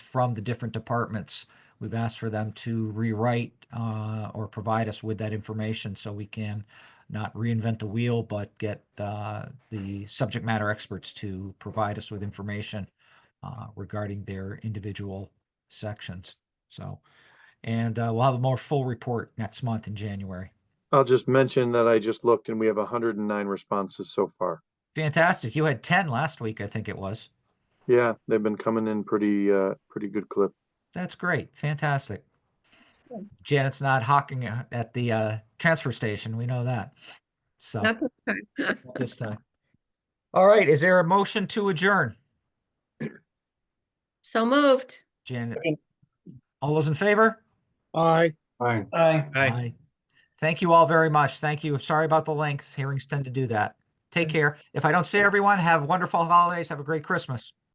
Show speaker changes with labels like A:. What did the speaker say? A: from the different departments. We've asked for them to rewrite uh, or provide us with that information so we can not reinvent the wheel, but get uh, the subject matter experts to provide us with information uh, regarding their individual sections. So, and uh, we'll have a more full report next month in January.
B: I'll just mention that I just looked and we have hundred and nine responses so far.
A: Fantastic. You had 10 last week, I think it was.
B: Yeah, they've been coming in pretty, uh, pretty good clip.
A: That's great. Fantastic.
C: good.
A: Janet's not hawking a- at the uh, transfer station. We know that. So
C: Not this time.
A: not this time. All right. Is there a motion to adjourn?
C: So moved.
A: Janet,
D: Second.
A: all those in favor?
D: Aye.
B: Aye.
D: Aye.
A: Aye. Thank you all very much. Thank you. Sorry about the length. Hearings tend to do that. Take care. If I don't see everyone, have wonderful holidays. Have a great Christmas.